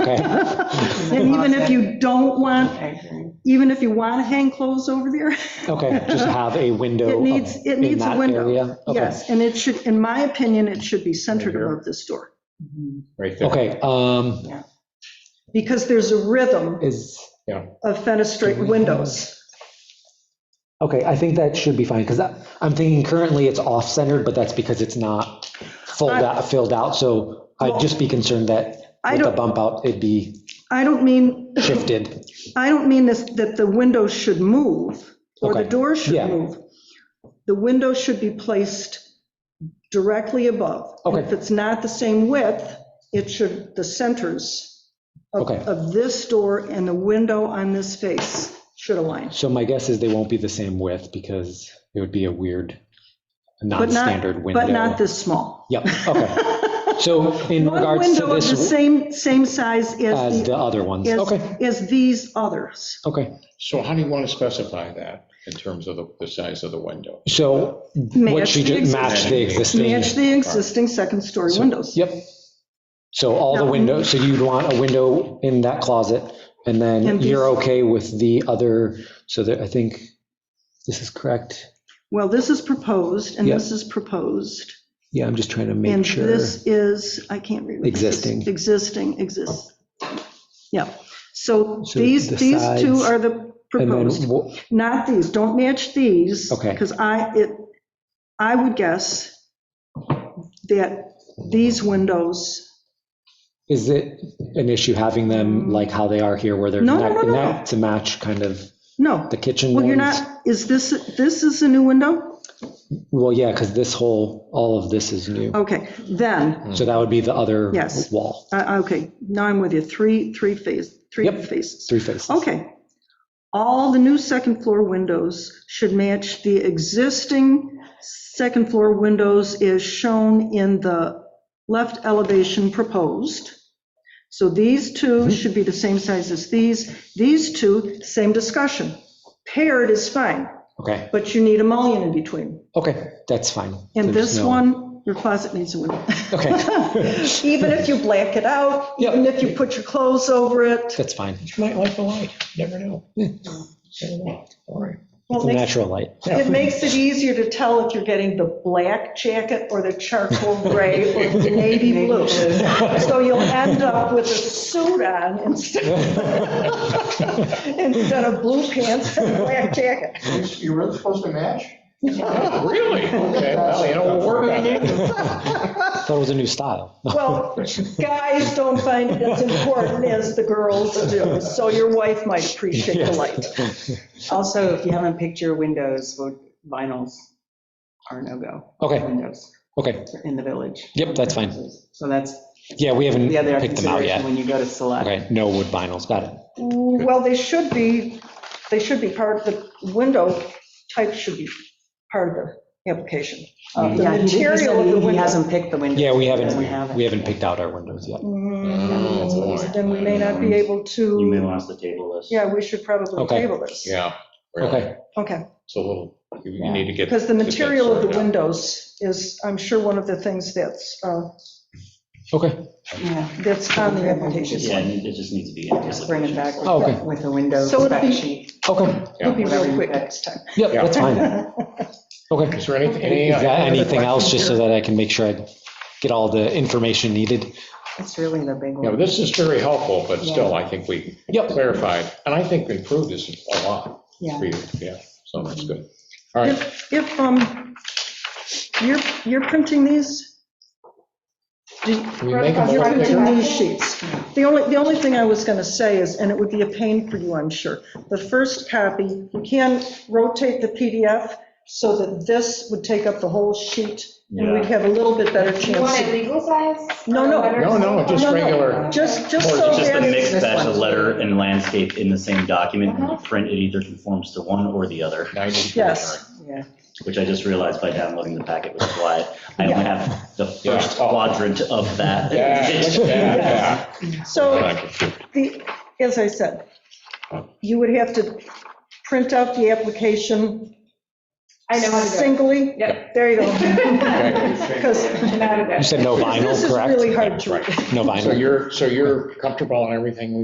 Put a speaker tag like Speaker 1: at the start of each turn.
Speaker 1: okay.
Speaker 2: And even if you don't want,
Speaker 3: Okay.
Speaker 2: even if you want to hang clothes over there,
Speaker 1: Okay, just have a window.
Speaker 2: It
Speaker 1: of-
Speaker 2: needs- it
Speaker 1: in
Speaker 2: needs a
Speaker 1: that
Speaker 2: window.
Speaker 1: area? Okay.
Speaker 2: yes, and it should, in my opinion, it should be centered
Speaker 4: Right here.
Speaker 2: above the store.
Speaker 3: Mhm.
Speaker 4: Right there.
Speaker 1: Okay, um,
Speaker 2: Because there's a rhythm
Speaker 1: is,
Speaker 2: of fenestrate windows.
Speaker 1: okay, I think that should be fine, because I'm thinking currently it's off-centered, but that's because it's not filled
Speaker 2: I-
Speaker 1: out, filled out, so I'd just be concerned that
Speaker 2: I
Speaker 1: with the
Speaker 2: don't,
Speaker 1: bump out, it'd be
Speaker 2: I don't mean,
Speaker 1: shifted.
Speaker 2: I don't mean this, that the windows should move or the
Speaker 1: Okay.
Speaker 2: doors should
Speaker 1: Yeah.
Speaker 2: move. The window should be placed directly above.
Speaker 1: Okay.
Speaker 2: If it's not the same width, it should, the centers of-
Speaker 1: Okay.
Speaker 2: of this door and the window on this face should align.
Speaker 1: So my guess is they won't be the same width, because it would be a weird,
Speaker 2: But not-
Speaker 1: non-standard window.
Speaker 2: But not this small.
Speaker 1: Yep, okay. So in
Speaker 2: One
Speaker 1: regards to
Speaker 2: window of the
Speaker 1: this,
Speaker 2: same, same size as,
Speaker 1: as the
Speaker 2: the-
Speaker 1: other ones, okay,
Speaker 2: as, as these others.
Speaker 1: okay.
Speaker 4: So how do you want to specify that in terms of the, the size of the window?
Speaker 1: So what
Speaker 2: Match
Speaker 1: she
Speaker 2: the
Speaker 1: just matched the
Speaker 2: existing- Match
Speaker 1: existing,
Speaker 2: the existing second-story
Speaker 1: So-
Speaker 2: windows.
Speaker 1: yep. So all the
Speaker 2: Now-
Speaker 1: windows, so you'd want a window in that closet, and then
Speaker 2: And
Speaker 1: you're
Speaker 2: these-
Speaker 1: okay with the other, so that, I think, this is correct?
Speaker 2: Well, this is proposed, and
Speaker 1: Yeah.
Speaker 2: this is proposed.
Speaker 1: Yeah, I'm just trying to
Speaker 2: And
Speaker 1: make sure.
Speaker 2: this is, I can't read. what this is.
Speaker 1: Existing.
Speaker 2: Existing, exist. Yeah. So
Speaker 1: So
Speaker 2: these,
Speaker 1: the
Speaker 2: these two
Speaker 1: sides,
Speaker 2: are the
Speaker 1: And then,
Speaker 2: proposed,
Speaker 1: wha-
Speaker 2: not these. Don't match these.
Speaker 1: Okay.
Speaker 2: Because I, it, I would guess that these windows
Speaker 1: is it an issue having them like how they are here, where they're
Speaker 2: No, no,
Speaker 1: not,
Speaker 2: no, no.
Speaker 1: not to match kind of
Speaker 2: No,
Speaker 1: the kitchen
Speaker 2: well,
Speaker 1: ones?
Speaker 2: you're not, is this, this is a new window?
Speaker 1: Well, yeah, because this whole, all of this is new.
Speaker 2: Okay, then,
Speaker 1: So that would be the other
Speaker 2: Yes.
Speaker 1: wall,
Speaker 2: uh, okay, now I'm with you, three, three phase, three
Speaker 1: Yep.
Speaker 2: phases.
Speaker 1: three faces.
Speaker 2: Okay. All the new second floor windows should match the existing second floor windows as shown in the left elevation proposed. So these two should be the same size as these. These two, same discussion. Paired is fine,
Speaker 1: Okay,
Speaker 2: but you need a mullion in between.
Speaker 1: okay, that's fine.
Speaker 2: And
Speaker 1: There's
Speaker 2: this
Speaker 1: no-
Speaker 2: one, your closet needs a window.
Speaker 1: Okay.
Speaker 2: Even if you black it out,
Speaker 1: Yep.
Speaker 2: even if you put your clothes over it.
Speaker 1: That's fine.
Speaker 4: You might like the light, never know. Never know. All right.
Speaker 2: Well,
Speaker 1: It's a
Speaker 2: it makes-
Speaker 1: natural light.
Speaker 2: It makes it easier to tell if you're getting the black jacket or the charcoal gray or the navy blue. So you'll end up with a suit on instead, instead of blue pants and a black jacket.
Speaker 5: You were supposed to match?
Speaker 4: Really? Okay, well, you know, we'll work on it.
Speaker 1: Thought it was a new style.
Speaker 2: Well, guys don't find it as important as the girls do, so your wife might appreciate the light.
Speaker 3: Also, if you haven't picked your windows, would- vinyls are no-go.
Speaker 1: Okay,
Speaker 3: Windows
Speaker 1: okay,
Speaker 3: in the village.
Speaker 1: yep, that's fine.
Speaker 3: So that's
Speaker 1: Yeah, we haven't
Speaker 3: the other
Speaker 1: picked them out
Speaker 3: consideration
Speaker 1: yet.
Speaker 3: when you go to select.
Speaker 1: Okay, no wood vinyls, got it.
Speaker 2: Well, they should be, they should be part, the window type should be part of the application.
Speaker 3: Uh,
Speaker 2: The
Speaker 3: yeah, he- he
Speaker 2: material
Speaker 3: said
Speaker 2: of the
Speaker 3: he- He
Speaker 2: window.
Speaker 3: hasn't picked the window.
Speaker 1: Yeah, we
Speaker 3: Doesn't have
Speaker 1: haven't,
Speaker 3: it.
Speaker 1: we haven't picked out our windows
Speaker 6: Oh,
Speaker 1: yet.
Speaker 2: Mm, that's what he said.
Speaker 4: Oh,
Speaker 2: Then we may not be able
Speaker 6: Mm. You may
Speaker 2: to,
Speaker 6: want us to table this.
Speaker 2: yeah, we should probably
Speaker 1: Okay.
Speaker 2: table this.
Speaker 4: Yeah. really.
Speaker 1: Okay,
Speaker 2: Okay,
Speaker 4: It's a little, you you need to get.
Speaker 2: because the
Speaker 4: get that
Speaker 2: material of the
Speaker 4: sorted out.
Speaker 2: windows is, I'm sure, one of the things that's, uh,
Speaker 1: okay,
Speaker 3: Yeah,
Speaker 2: that's on the
Speaker 6: Yeah,
Speaker 2: application.
Speaker 6: it need- it just needs to be.
Speaker 3: just bring it back
Speaker 1: Oh, okay.
Speaker 3: with- with the window
Speaker 2: So it'll
Speaker 3: spec
Speaker 2: be-
Speaker 3: sheet.
Speaker 1: okay,
Speaker 2: It'll be
Speaker 3: Whatever
Speaker 2: real
Speaker 3: you
Speaker 2: quick
Speaker 3: pick.
Speaker 2: next time.
Speaker 1: yep,
Speaker 4: Yeah.
Speaker 1: that's fine. Okay.
Speaker 4: Is there any, any? uh,
Speaker 1: Is that
Speaker 4: other
Speaker 1: anything else,
Speaker 4: questions
Speaker 1: just so
Speaker 4: here?
Speaker 1: that I can make sure I get all the information needed?
Speaker 3: That's really the big
Speaker 4: Yeah,
Speaker 3: one.
Speaker 4: but this is very helpful, but still, I think we
Speaker 1: Yep,
Speaker 4: clarified, and I think improved this a lot
Speaker 3: Yeah.
Speaker 4: for you, yeah, so that's good. All right,
Speaker 2: If, if, um, you're, you're printing these? Do-
Speaker 4: Can we make them
Speaker 2: You're
Speaker 4: a lot
Speaker 2: printing
Speaker 4: bigger?
Speaker 2: these sheets. The only, the only thing I was going to say is, and it would be a pain for you, I'm sure, the first copy, you can rotate the PDF so that this would take up the whole sheet, and we'd
Speaker 6: Yeah.
Speaker 2: have a little bit better
Speaker 7: You want it
Speaker 2: chance.
Speaker 7: legal size?
Speaker 2: No, no.
Speaker 4: No, no, just
Speaker 2: No, no.
Speaker 4: regular.
Speaker 2: Just, just
Speaker 4: Or
Speaker 2: so
Speaker 6: Just
Speaker 2: that,
Speaker 6: a mixed batch of letter and landscape in the same document. When you
Speaker 3: Uh-huh.
Speaker 6: print, it either conforms to one or the other,
Speaker 4: 90.
Speaker 2: Yes.
Speaker 3: Yeah.
Speaker 6: which I just realized by downloading the packet, which is why I only have the
Speaker 4: Yeah.
Speaker 6: first quadrant of that.
Speaker 4: Yeah, yeah,
Speaker 2: so
Speaker 4: yeah.
Speaker 2: the, as I said, you would have to print out the application
Speaker 7: I know how to do it.
Speaker 2: Singly?
Speaker 7: Yep.
Speaker 2: There you go.
Speaker 4: Okay.
Speaker 2: 'Cause
Speaker 7: I know how to do it.
Speaker 1: You said no vinyl, correct?
Speaker 2: This is really hard to read.
Speaker 1: No vinyl.
Speaker 4: So you're, so you're comfortable on everything we